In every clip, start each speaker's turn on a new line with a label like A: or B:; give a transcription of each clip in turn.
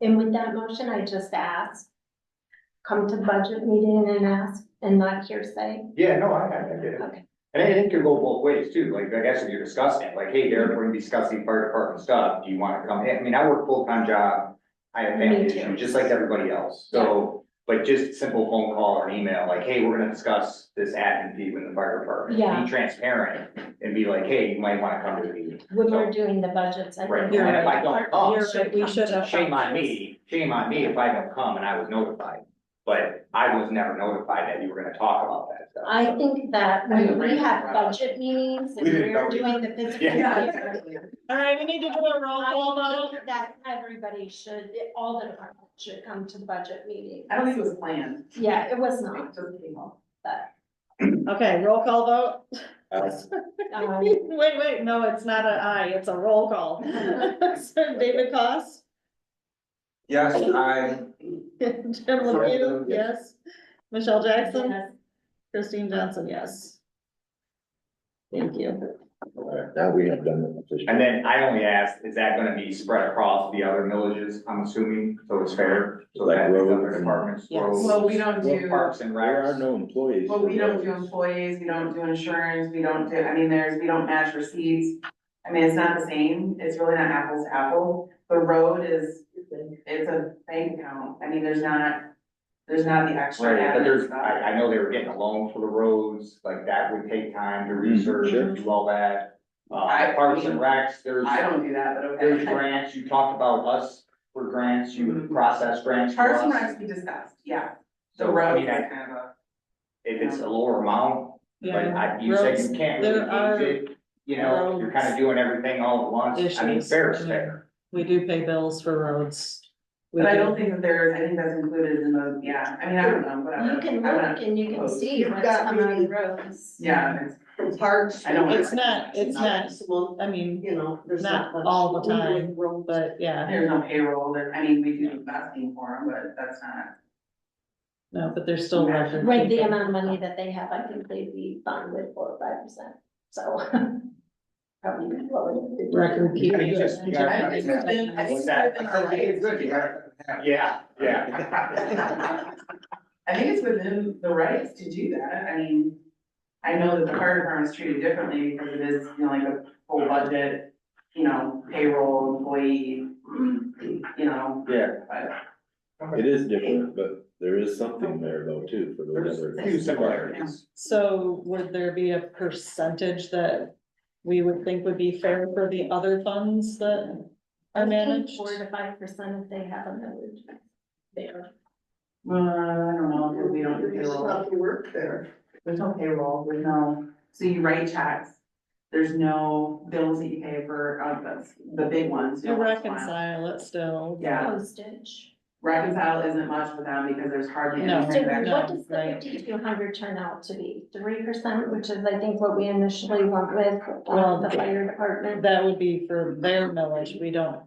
A: And with that motion, I just ask, come to budget meeting and ask, and not hearsay.
B: Yeah, no, I, I I get it.
A: Okay.
B: And I think it can go both ways too, like, I guess if you're discussing it, like, hey, Derek, we're gonna be discussing fire department stuff, do you wanna come in? I mean, I work full-time job. I have
A: Me
B: family
A: too.
B: issues, just like everybody else, so, but just simple phone call or email, like, hey, we're gonna discuss this admin fee with the fire department.
A: Yeah.
B: Be transparent and be like, hey, you might wanna come to the meeting.
A: When we're doing the budgets, I
B: Right.
A: think.
B: And if I "Oh, don't come,
C: You're right, we should have.
B: Shame on me, shame on me if I don't come and I was notified, but I was never notified that you were gonna talk about that stuff.
A: I think that when we have budget meetings and
B: We didn't
A: we're
B: know.
A: doing the physical.
B: Yeah.
C: All right, we need to do a roll call
A: I
C: vote.
A: think that everybody should, all the departments should come to the budget meeting.
D: I don't think it was planned.
A: Yeah, it was not,
D: It just came up.
A: but,
C: Okay, roll call vote.
A: um,
C: Wait, wait, no, it's not an I, it's a roll call. So David Cos,
E: Yes, I,
C: Jim Lepew, yes. Michelle Jackson,
A: yes,
C: Christine Johnson, yes. Thank you.
F: Now we have done the petition.
B: And then I only asked, is that gonna be spread across the other villages, I'm assuming, so it's fair? So
F: Like
B: that the other
F: roads and-
B: departments,
D: Yes.
B: roads,
D: Well, we don't do-
B: Parks and
F: There are
B: recs.
F: no employees.
D: Well, we don't do
F: for those.
D: employees, we don't do insurance, we don't do, I mean, there's, we don't match receipts. I mean, it's not the same, it's really not apples to apple. The road is, it's a bank account, I mean, there's not, there's not the extra.
B: Right, but
D: admin
B: there's,
D: stuff.
B: I, I know they were getting a loan for the roads, like that would take time to
F: Mm,
B: research
F: sure.
B: and do all that. Uh,
D: I-
B: Parks and recs, there's,
D: I don't do that, but
B: there's
D: okay.
B: grants, you talked about us for grants, you
D: Mhm.
B: process grants for
D: Parks and
B: us.
D: Recs we discussed, yeah. The
B: So, I
D: road is
B: mean, I-
D: kind of a,
B: if it's a lower amount, but I, you said you can't
C: There are
B: really use it. You know, you're kinda doing everything all at once, I mean,
C: issues.
B: fair is fair.
C: We do pay bills for roads. We
D: but I
C: do.
D: don't think that there's, I think that's included in the, yeah, I mean, I don't know, whatever.
A: you can
D: I wouldn't-
A: look and you can see
G: You've
A: what's
G: got
A: coming on the
G: meeting.
A: roads.
D: Yeah, it's,
G: It's hard.
D: I don't-
C: It's not, it's not,
G: Well,
C: I mean,
G: you know, there's
C: Not
G: not much.
C: all the time,
G: We would-
C: but yeah,
D: there's no payroll, there, I mean, we do the best thing for them, but that's not.
C: no, but there's still record.
A: Right, the
C: keeping.
A: amount of money that they have, I think they'd be fine with four or five percent, so. Probably lower than fifty.
C: Record
B: I
C: keeping.
B: mean, just- you gotta-
D: I think we've been, I think we've been all right.
B: Yeah, yeah.
D: I think it's within the rights to do that, I mean, I know that the fire department is treated differently because it is, you know, like a full budget, you know, payroll, employee, you know,
B: Yeah.
D: but.
F: It is different, but there is something there though too for the
B: There's
F: other.
B: a few similarities.
C: So would there be a percentage that we would think would be fair for the other funds that
A: I
C: are
A: think
C: managed?
A: Four to five percent if they have a village. There.
D: Uh, I don't know, because we don't do
G: There's
D: payroll.
G: not the work there.
D: There's no payroll, there's no, so you write checks, there's no bills that you pay for, uh, that's the big ones. you
C: To
D: know, once in a while.
C: reconcile it still,
D: Yeah,
A: Postage.
D: reconcile isn't much for them because there's hardly
C: No.
D: any
A: So
D: transaction.
A: what does the
C: right.
A: fifty-two hundred turn out to be? Three percent, which is I think what we initially went with,
C: Well,
A: uh, the fire department.
C: that would be for their millage, we don't,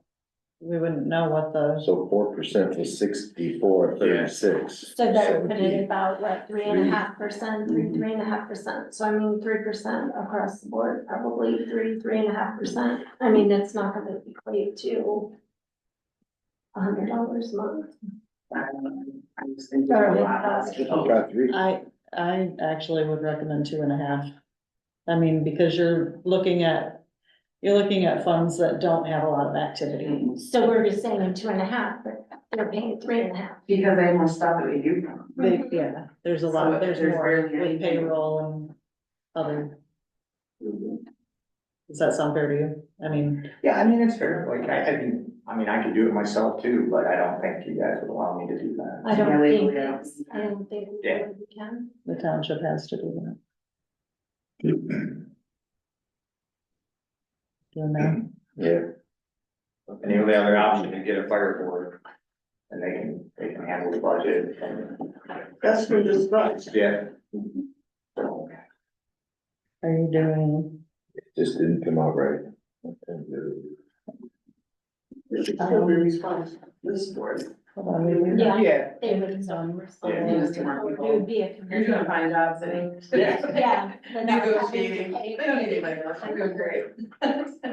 C: we wouldn't know what the,
F: So four percent was sixty-four, thirty-six.
A: So that would
F: would
A: put it
F: be-
A: about what, three and a half percent, three, three and a half percent, so I mean, three percent across the board, probably three, three and a half percent. I mean, it's not gonna equate to a hundred dollars a month.
D: I don't know, I'm just thinking a lot. Oh.
F: About three,
C: I, I actually would recommend two and a half. I mean, because you're looking at, you're looking at funds that don't have a lot of activity.
A: So we're just saying two and a half, but they're paying three and a half.
D: Because they have more stuff that we do. for them.
C: They, yeah, there's a lot,
D: Mm-hmm. So
C: there's
D: there's
C: more
D: barely
C: with
D: anything.
C: payroll and other, does that sound fair to you? I mean,
B: Yeah, I mean, it's fair, like, I, I mean, I mean, I could do it myself too, but I don't think you guys would allow me to do that.
A: I don't
D: Yeah,
A: think,
D: legally, I don't
A: it's-
D: see
A: I don't think we
B: Yeah.
A: really can.
C: the township has to do that. You know,
F: yeah.
B: And the only other option is get a fire board, and they can, they can handle the budget and,
G: That's for this price.
B: yeah.
C: are you doing,
F: Just didn't come out right. And,
G: This is still the response, this board.
C: hold on, we-
A: Yeah.
B: Yeah.
A: They would exhaust
B: Yeah.
A: It would be a
D: You're gonna
A: commitment.
D: find jobs eh? that.
B: Yeah.
A: Yeah. but not having to
D: Negotiating,
A: pay-
D: they don't need anybody else, I'm doing great.